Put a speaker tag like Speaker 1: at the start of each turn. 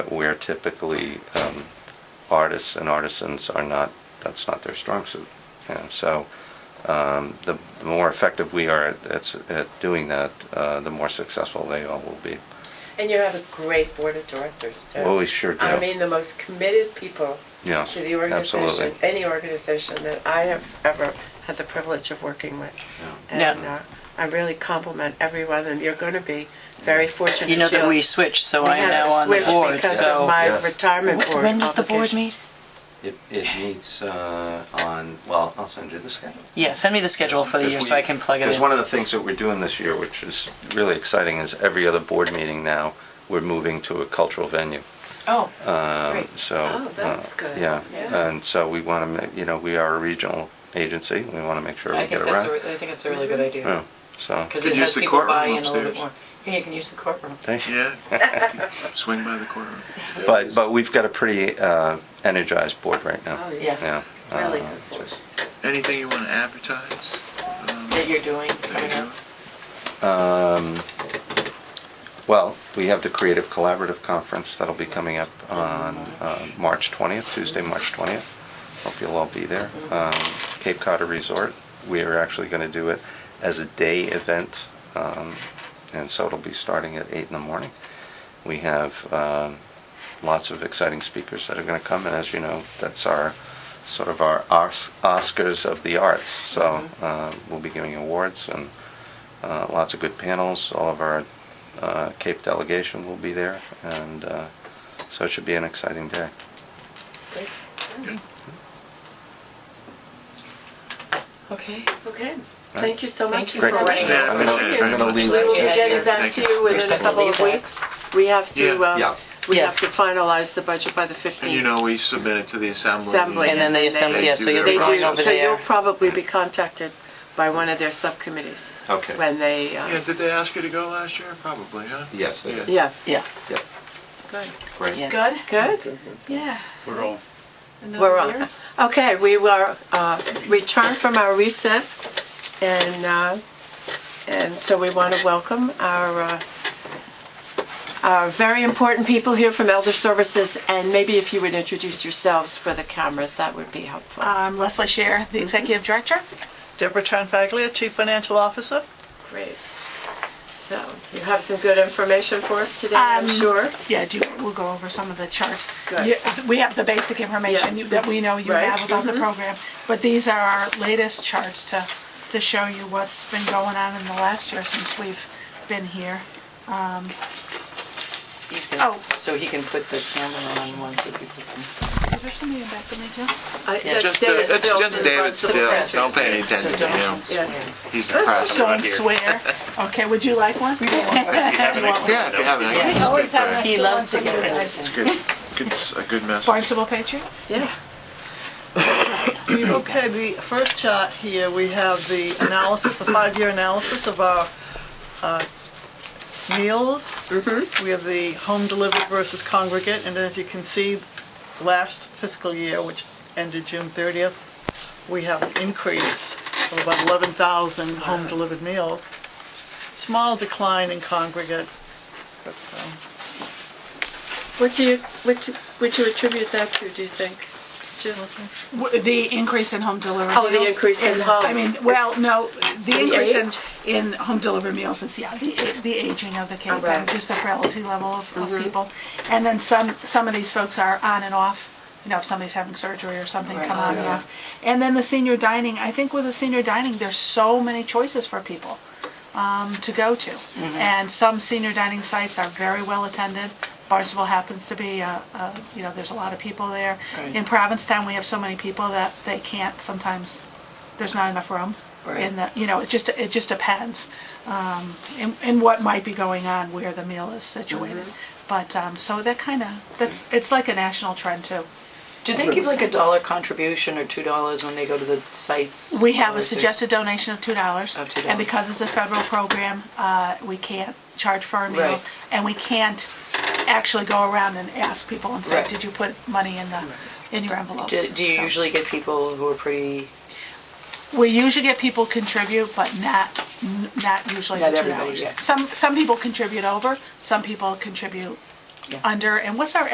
Speaker 1: where typically um, artists and artisans are not, that's not their strong suit. And so um, the the more effective we are at- at at doing that, uh, the more successful they all will be.
Speaker 2: And you have a great board of directors, too.
Speaker 1: Well, we sure do.
Speaker 2: I mean, the most committed people
Speaker 1: Yes,
Speaker 2: to the organization,
Speaker 1: absolutely.
Speaker 2: any organization that I have ever had the privilege of working with.
Speaker 3: Yeah.
Speaker 2: And uh, I really compliment everyone, and you're going to be very fortunate.
Speaker 3: You know that
Speaker 2: you'll-
Speaker 3: we switched, so
Speaker 2: we
Speaker 3: I'm
Speaker 2: had to
Speaker 3: now on the
Speaker 2: switch
Speaker 3: board,
Speaker 2: Because
Speaker 3: so.
Speaker 2: of my
Speaker 4: Yes.
Speaker 2: retirement
Speaker 3: Wh-
Speaker 2: board
Speaker 3: When does the board
Speaker 2: obligation.
Speaker 3: meet?
Speaker 4: It, it meets uh, on, well, I'll send you the schedule.
Speaker 3: Yeah, send me the schedule for the year so I can plug it in.
Speaker 1: Because one of the things that we're doing this year, which is really exciting, is every other board meeting now, we're moving to a cultural venue.
Speaker 3: Oh,
Speaker 1: Um,
Speaker 3: Great.
Speaker 1: So.
Speaker 2: Oh, that's
Speaker 1: uh,
Speaker 2: good.
Speaker 1: Yeah,
Speaker 2: Yeah.
Speaker 1: and so we want to, you know, we are a regional agency, we want to make sure we
Speaker 5: I
Speaker 1: get Oh.
Speaker 5: think
Speaker 1: it
Speaker 5: that's, a
Speaker 1: right.
Speaker 5: re- I think it's a really good idea.
Speaker 1: Yeah, So,
Speaker 5: Because
Speaker 6: Could
Speaker 5: it
Speaker 6: use
Speaker 5: has
Speaker 6: the
Speaker 5: people
Speaker 6: courtroom
Speaker 5: buy in a little bit
Speaker 6: upstairs.
Speaker 5: more. Yeah, you can use the courtroom.
Speaker 1: thank you.
Speaker 6: Yeah, swing by the corner.
Speaker 1: But, but we've got a pretty uh, energized board right now.
Speaker 2: Oh,
Speaker 5: yeah.
Speaker 1: Yeah.
Speaker 2: Really
Speaker 1: uh,
Speaker 2: good board.
Speaker 1: just-
Speaker 6: Anything you want to advertise? um,
Speaker 5: That you're doing
Speaker 6: that
Speaker 5: coming
Speaker 6: you're
Speaker 5: up.
Speaker 6: doing?
Speaker 1: Um, Well, we have the Creative Collaborative Conference that'll be coming up on uh, March 20th, Tuesday, March 20th. Hope you'll all be there. Um, Cape Cod Resort, we are actually going to do it as a day event, um, and so it'll be starting at eight in the morning. We have um, lots of exciting speakers that are going to come, and as you know, that's our, sort of our Os- Oscars of the arts. So uh, we'll be giving awards and uh, lots of good panels. All of our uh, Cape delegation will be there, and uh, so it should be an exciting day.
Speaker 6: Good.
Speaker 5: Okay.
Speaker 2: Okay, thank you so much
Speaker 5: Thank you
Speaker 2: for
Speaker 5: for
Speaker 2: running.
Speaker 5: running
Speaker 6: Yeah,
Speaker 2: over.
Speaker 6: I
Speaker 1: I'm gonna-
Speaker 6: appreciate it very
Speaker 1: I'm gonna
Speaker 6: much.
Speaker 2: We
Speaker 1: leave.
Speaker 2: will be getting
Speaker 5: Thank
Speaker 2: back to you within a
Speaker 5: second
Speaker 2: couple of
Speaker 5: leader.
Speaker 2: weeks. We have to,
Speaker 6: Yeah.
Speaker 2: um,
Speaker 4: Yeah.
Speaker 2: we
Speaker 3: Yeah.
Speaker 2: have to finalize the budget by the 15th.
Speaker 6: And you know, we submitted to the assembly.
Speaker 2: Assembly.
Speaker 3: And then the
Speaker 2: They
Speaker 3: assembly, yeah, so
Speaker 6: do
Speaker 3: you'll
Speaker 6: their
Speaker 3: be
Speaker 2: They
Speaker 3: going
Speaker 6: own.
Speaker 2: do,
Speaker 3: over
Speaker 2: so you'll
Speaker 3: there.
Speaker 2: probably be contacted by one of their subcommittees.
Speaker 4: Okay.
Speaker 2: When they, uh,
Speaker 6: Yeah, did they ask you to go last year? Probably, huh?
Speaker 4: Yes, they did.
Speaker 2: yeah.
Speaker 3: Yeah,
Speaker 4: Yep,
Speaker 2: Good.
Speaker 4: great.
Speaker 3: Yeah.
Speaker 2: Good? Good, yeah.
Speaker 7: We're all
Speaker 2: We're on. Okay, we were, uh, returned from our recess, and, uh, and so we want to welcome our, uh, our very important people here from Elder Services, and maybe if you would introduce yourselves for the cameras, that would be helpful.
Speaker 8: I'm Um, Leslie Shear, the Executive Director.
Speaker 3: Deborah Tronfaglia, Chief Financial Officer.
Speaker 2: Great. So, you have some good information for us today, I'm
Speaker 8: Um,
Speaker 2: sure. Uh,
Speaker 8: Yeah, do, we'll go over some of the charts.
Speaker 2: Good.
Speaker 8: You- We have the basic information
Speaker 2: Yeah.
Speaker 8: you- that we know you
Speaker 2: Right. Mm-hmm.
Speaker 8: have about the program, but these are our latest charts to, to show you what's been going on in the last year since we've been here.
Speaker 3: He's gonna-
Speaker 8: Oh.
Speaker 3: So he can put the camera on one so people can.
Speaker 8: Is there somebody in back of me too?
Speaker 2: I- that's
Speaker 6: Just, uh,
Speaker 2: David
Speaker 6: it's
Speaker 2: Still
Speaker 6: just
Speaker 2: is
Speaker 6: David
Speaker 2: responsible.
Speaker 6: Still. Don't pay any attention to him.
Speaker 3: So don't swear.
Speaker 6: He's the press.
Speaker 8: Don't swear. Okay, would you like one?
Speaker 6: Yeah, if you haven't. I guess it's good
Speaker 8: always have
Speaker 6: for-
Speaker 8: an
Speaker 3: He loves to get it.
Speaker 6: It's good, good, s- a good message.
Speaker 8: Barnstable Patriot?
Speaker 2: Yeah.
Speaker 9: Okay, the first chart here, we have the analysis, a five-year analysis of our uh, meals. We have the home delivered versus congregate, and as you can see, last fiscal year, which ended June 30th, we have an increase of about 11,000 home delivered meals. Small decline in congregate, but um,
Speaker 2: What do you, what do- would you attribute that to, do you think? Just,
Speaker 8: W- The increase in home delivery.
Speaker 2: Oh, the
Speaker 8: meals
Speaker 2: increase in
Speaker 8: is-
Speaker 2: home.
Speaker 8: I mean, well, no, the increase in,
Speaker 2: age?
Speaker 8: in home delivery meals is, yeah, the, the aging of the Cape
Speaker 2: Right.
Speaker 8: and just the frailty level of, of
Speaker 2: Mm-hmm.
Speaker 8: people. And then some, some of these folks are on and off, you know, if somebody's having surgery or something, come on and off. And then the senior dining, I think with the senior dining, there's so many choices for people um, to go to. And some senior dining sites are very well attended. Barnstable happens to be, uh, uh, you know, there's a lot of people there. In Provincetown, we have so many people that they can't sometimes, there's not enough room. In the, you know, it just, it just depends um, in, in what might be going on where the meal is situated. But, um, so that kind of, that's, it's like a national trend too.
Speaker 5: Do they give like a dollar contribution or two dollars when they go to the sites?
Speaker 8: We have
Speaker 5: Or
Speaker 8: a
Speaker 5: is it-
Speaker 8: suggested donation of two dollars.
Speaker 5: Of $2.
Speaker 8: And because it's a federal program, uh, we can't charge for a
Speaker 5: Right.
Speaker 8: meal. And we can't actually go around and ask people and say,
Speaker 5: Right.
Speaker 8: did you put money in the, in your envelope?
Speaker 5: Do, do you
Speaker 8: So-
Speaker 5: usually get people who are pretty?
Speaker 8: We usually get people contribute, but not, n- not usually the
Speaker 5: Not
Speaker 8: two
Speaker 5: everybody,
Speaker 8: dollars.
Speaker 5: yeah.
Speaker 8: Some, some people contribute over, some people contribute under. And what's our